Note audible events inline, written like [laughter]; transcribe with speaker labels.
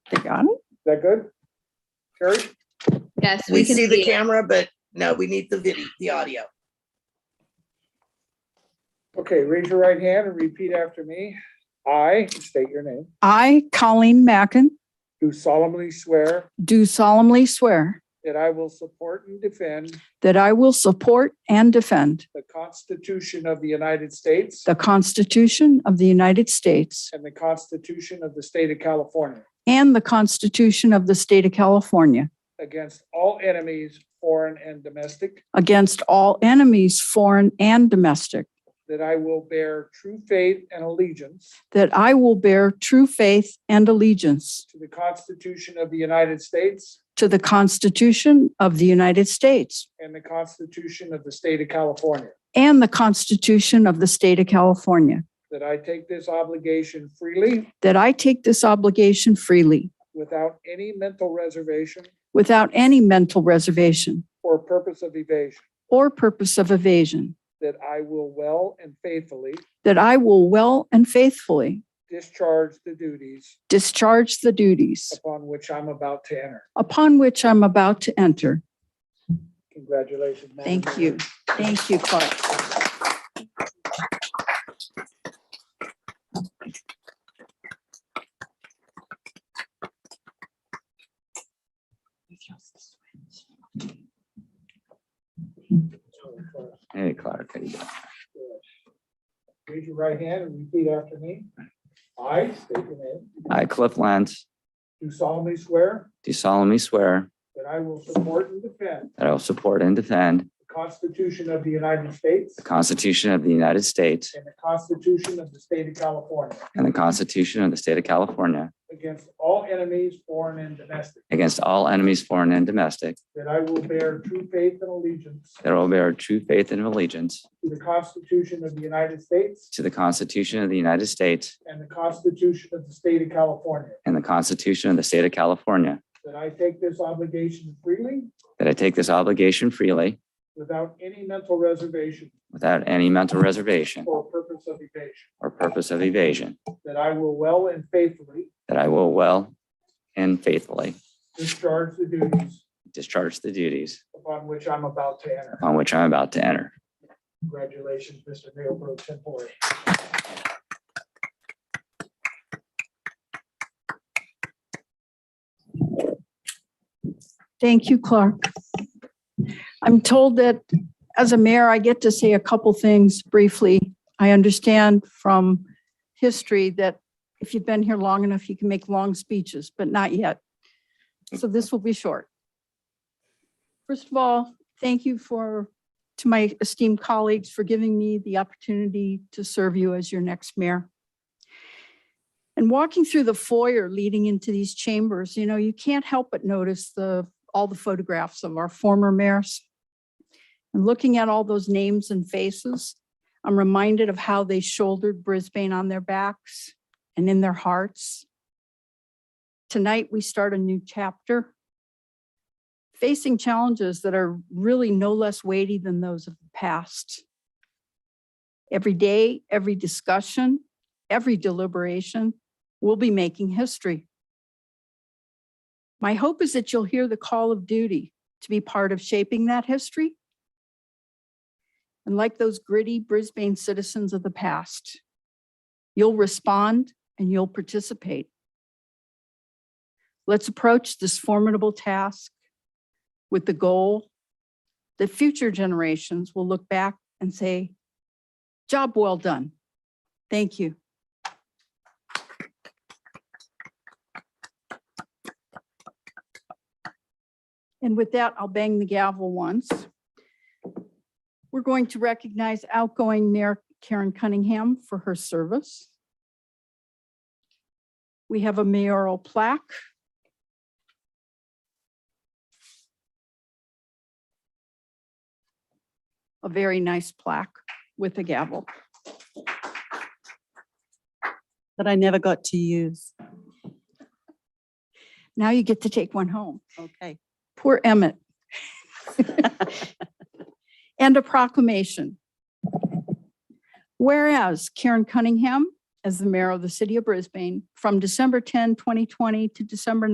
Speaker 1: They got it?
Speaker 2: that good? Carrie?
Speaker 3: Yes,
Speaker 4: We see the
Speaker 3: it.
Speaker 4: camera, but no, we need the video, the audio.
Speaker 2: Okay, raise your right hand and repeat after me. I state your name.
Speaker 1: I, Colleen Mackin,
Speaker 2: Do solemnly swear
Speaker 1: do solemnly swear
Speaker 2: that I will support and defend
Speaker 1: that I will support and defend
Speaker 2: the Constitution of the United States
Speaker 1: the Constitution of the United States
Speaker 2: and the Constitution of the State of California
Speaker 1: and the Constitution of the State of California
Speaker 2: against all enemies, foreign and domestic,
Speaker 1: against all enemies, foreign and domestic,
Speaker 2: that I will bear true faith and allegiance
Speaker 1: that I will bear true faith and allegiance
Speaker 2: to the Constitution of the United States
Speaker 1: to the Constitution of the United States
Speaker 2: and the Constitution of the State of California,
Speaker 1: and the Constitution of the State of California,
Speaker 2: that I take this obligation freely
Speaker 1: that I take this obligation freely
Speaker 2: without any mental reservation
Speaker 1: without any mental reservation
Speaker 2: or purpose of evasion,
Speaker 1: or purpose of evasion,
Speaker 2: that I will well and faithfully
Speaker 1: that I will well and faithfully
Speaker 2: discharge the duties
Speaker 1: discharge the duties
Speaker 2: upon which I'm about to enter.
Speaker 1: upon which I'm about to enter.
Speaker 2: Congratulations. Madam
Speaker 1: Thank
Speaker 2: Mayor.
Speaker 1: you. Thank you, Clark.
Speaker 2: uh,
Speaker 5: Hey, Clark, how you doing?
Speaker 2: Raise your right hand and repeat after me. I state your name.
Speaker 5: I, Cliff Lentz,
Speaker 2: Do solemnly swear
Speaker 5: do solemnly swear
Speaker 2: that I will support and defend
Speaker 5: that I will support and defend
Speaker 2: the Constitution of the United States
Speaker 5: the Constitution of the United States
Speaker 2: and the Constitution of the State of California
Speaker 5: and the Constitution of the State of California
Speaker 2: against all enemies, foreign and domestic,
Speaker 5: against all enemies, foreign and domestic,
Speaker 2: that I will bear true faith and allegiance
Speaker 5: that I will bear true faith and allegiance
Speaker 2: to the Constitution of the United States
Speaker 5: to the Constitution of the United States
Speaker 2: and the Constitution of the State of California,
Speaker 5: and the Constitution of the State of California,
Speaker 2: that I take this obligation freely
Speaker 5: that I take this obligation freely
Speaker 2: without any mental reservation
Speaker 5: without any mental reservation
Speaker 2: or purpose of evasion,
Speaker 5: or purpose of evasion,
Speaker 2: that I will well and faithfully
Speaker 5: that I will well and faithfully
Speaker 2: discharge the duties
Speaker 5: discharge the duties
Speaker 2: upon which I'm about to enter.
Speaker 5: upon which I'm about to enter.
Speaker 2: Congratulations, Mr. Mayor Pro Tempore.
Speaker 1: Thank you, Clark. I'm told that as a mayor, I get to say a couple things briefly. I understand from history that if you've been here long enough, you can make long speeches, but not yet. So this will be short. First of all, thank you for, to my esteemed colleagues for giving me the opportunity to serve you as your next mayor. And walking through the foyer leading into these chambers, you know, you can't help but notice the, all the photographs of our former mayors. And looking at all those names and faces, I'm reminded of how they shouldered Brisbane on their backs and in their hearts. Tonight, we start a new chapter. Facing challenges that are really no less weighty than those of the past. Every day, every discussion, every deliberation, we'll be making history. My hope is that you'll hear the call of duty to be part of shaping that history. And like those gritty Brisbane citizens of the past, you'll respond and you'll participate. Let's approach this formidable task with the goal that future generations will look back and say, job well done. Thank you. And with that, I'll bang the gavel once. We're going to recognize outgoing Mayor Karen Cunningham for her service. We have a mayoral plaque. A very nice plaque with a gavel.
Speaker 6: that I never got to use.
Speaker 1: Now you get to take one home.
Speaker 6: [laughs] Okay.
Speaker 1: Poor Emmett. And a proclamation. Whereas Karen Cunningham as the mayor of the city of Brisbane from December 10, 2020 to December